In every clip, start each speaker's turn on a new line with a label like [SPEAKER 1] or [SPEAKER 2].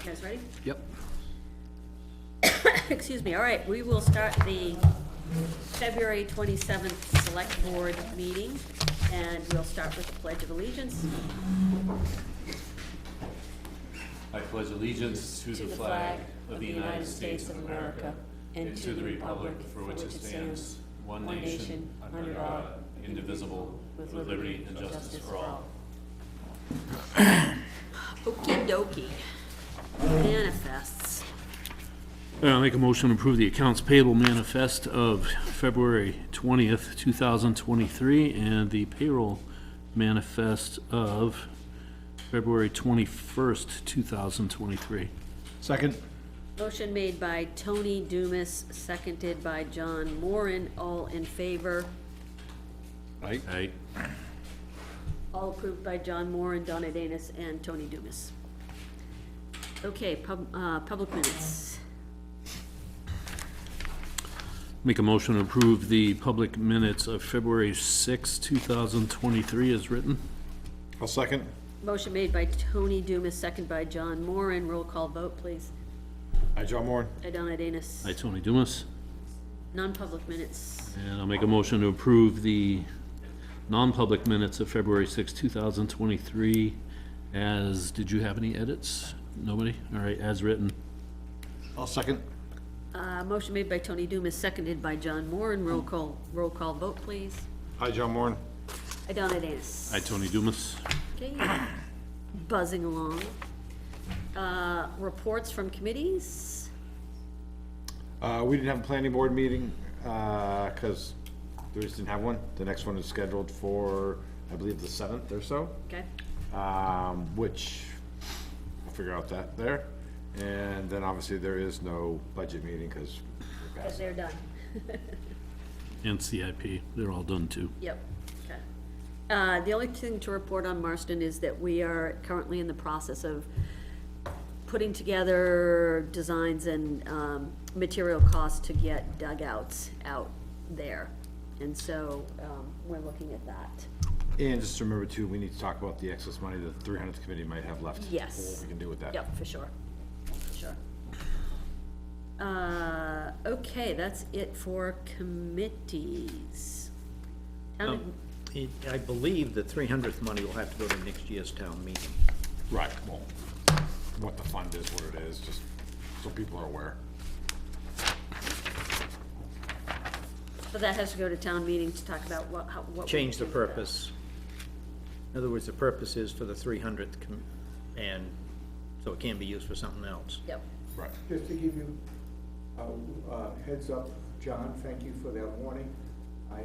[SPEAKER 1] You guys ready?
[SPEAKER 2] Yep.
[SPEAKER 1] Excuse me, all right, we will start the February twenty-seventh Select Board meeting, and we'll start with the Pledge of Allegiance.
[SPEAKER 3] I pledge allegiance to the flag of the United States of America and to the republic for which it stands, one nation, under God, indivisible, with liberty and justice for all.
[SPEAKER 1] Okie dokie. Manifests.
[SPEAKER 2] I'll make a motion to approve the accounts payable manifest of February 20th, 2023, and the payroll manifest of February 21st, 2023.
[SPEAKER 4] Second?
[SPEAKER 1] Motion made by Tony Dumas, seconded by John Moran, all in favor,
[SPEAKER 4] Aye.
[SPEAKER 2] Aye.
[SPEAKER 1] all approved by John Moran, Donna Danus, and Tony Dumas. Okay, pub, uh, public minutes.
[SPEAKER 2] Make a motion to approve the public minutes of February 6th, 2023 as written.
[SPEAKER 4] I'll second.
[SPEAKER 1] Motion made by Tony Dumas, second by John Moran. Roll call vote, please.
[SPEAKER 4] Aye, John Moore.
[SPEAKER 1] Idonna Danis.
[SPEAKER 2] Aye, Tony Dumas.
[SPEAKER 1] Non-public minutes.
[SPEAKER 2] And I'll make a motion to approve the non-public minutes of February 6, 2023 as, did you have any edits? Nobody? All right, as written.
[SPEAKER 4] I'll second.
[SPEAKER 1] Uh, motion made by Tony Dumas, seconded by John Moran. Roll call, roll call vote, please.
[SPEAKER 4] Aye, John Moore.
[SPEAKER 1] Idonna Danis.
[SPEAKER 2] Aye, Tony Dumas.
[SPEAKER 1] Okay, buzzing along. Uh, reports from committees?
[SPEAKER 4] Uh, we didn't have a planning board meeting, uh, cause we just didn't have one. The next one is scheduled for, I believe, the seventh or so,
[SPEAKER 1] Okay,
[SPEAKER 4] um, which, we'll figure out that there. And then obviously there is no budget meeting, cause we're
[SPEAKER 1] because
[SPEAKER 4] past
[SPEAKER 1] they're done.
[SPEAKER 2] And CIP, they're all done too.
[SPEAKER 1] Yep, okay. Uh, the only thing to report on Marston is that we are currently in the process of putting together designs and, um, material costs to get dugouts out there. And so, um, we're looking at that.
[SPEAKER 4] And just remember too, we need to talk about the excess money that the three hundredth committee might have left.
[SPEAKER 1] Yes.
[SPEAKER 4] What we can do with that.
[SPEAKER 1] Yep, for sure, for sure. Uh, okay, that's it for committees.
[SPEAKER 5] Oh.
[SPEAKER 1] Town ad-
[SPEAKER 5] It- I believe the 300th money will have to go to next year's town meeting.
[SPEAKER 4] Right, well, what the fund is, what it is, just so people are aware.
[SPEAKER 1] But that has to go to town meeting to talk about what, how, what. we
[SPEAKER 5] Change the
[SPEAKER 1] do with that.
[SPEAKER 5] purpose. In other words, the purpose is for the 300th, com- and so it can be used for something else.
[SPEAKER 1] Yep,
[SPEAKER 4] Right.
[SPEAKER 6] Just to give you a uh, heads up, John, thank you for that warning. I,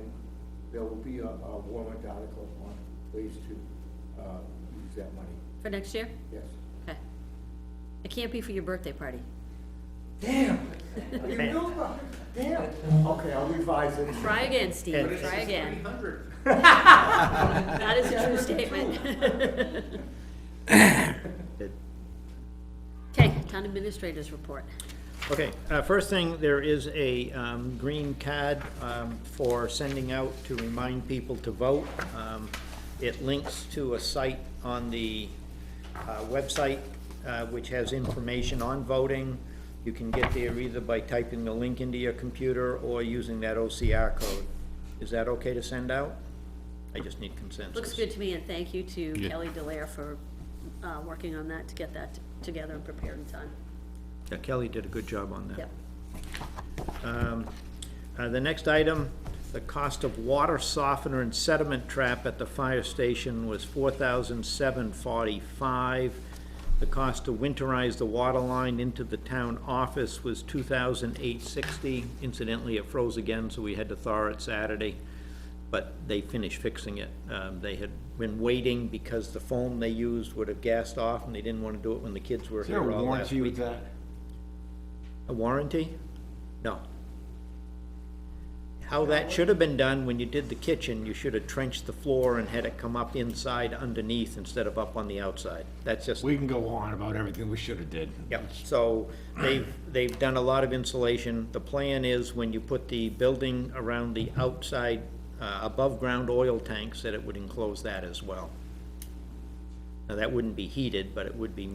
[SPEAKER 6] there will be a a warrant article on ways to uh, use that money,
[SPEAKER 1] for next year?
[SPEAKER 6] yes.
[SPEAKER 1] Okay. It can't be for your birthday party.
[SPEAKER 6] Damn, you knew about, damn. Okay, I'll revise it.
[SPEAKER 1] Try again, Steve, try again. That is a true statement.
[SPEAKER 5] It-
[SPEAKER 1] Okay, town administrators report.
[SPEAKER 5] Okay, uh, first thing, there is a um, green card um, for sending out to remind people to vote. Um, It links to a site on the uh, website uh, which has information on voting. You can get there either by typing the link into your computer or using that OCR code. Is that okay to send out? I just need consensus.
[SPEAKER 1] Looks good to me, and thank you to
[SPEAKER 2] Yeah.
[SPEAKER 1] Kelly Delaire for, uh, working on that to get that together and prepared in time.
[SPEAKER 5] Yeah, Kelly did a good job on that.
[SPEAKER 1] Yep.
[SPEAKER 5] Um, uh, The next item, the cost of water softener and sediment trap at the fire station was four thousand seven forty-five. The cost to winterize the water line into the town office was two thousand eight sixty. Incidentally, it froze again, so we had to thaw it Saturday, but they finished fixing it. Um, They had been waiting because the foam they used would have gassed off, and they didn't want to do it when the kids were
[SPEAKER 4] Is there
[SPEAKER 5] here all
[SPEAKER 4] a
[SPEAKER 5] last
[SPEAKER 4] warranty
[SPEAKER 5] week.
[SPEAKER 4] with that?
[SPEAKER 5] A warranty? No. How that should have been done when you did the kitchen, you should have trenched the floor and had it come up inside underneath instead of up on the outside. That's just,
[SPEAKER 4] We can go on about everything we should have did.
[SPEAKER 5] yeah. So they've, they've done a lot of insulation. The plan is when you put the building around the outside, uh, above-ground oil tanks, that it would enclose that as well. Now, that wouldn't be heated, but it would be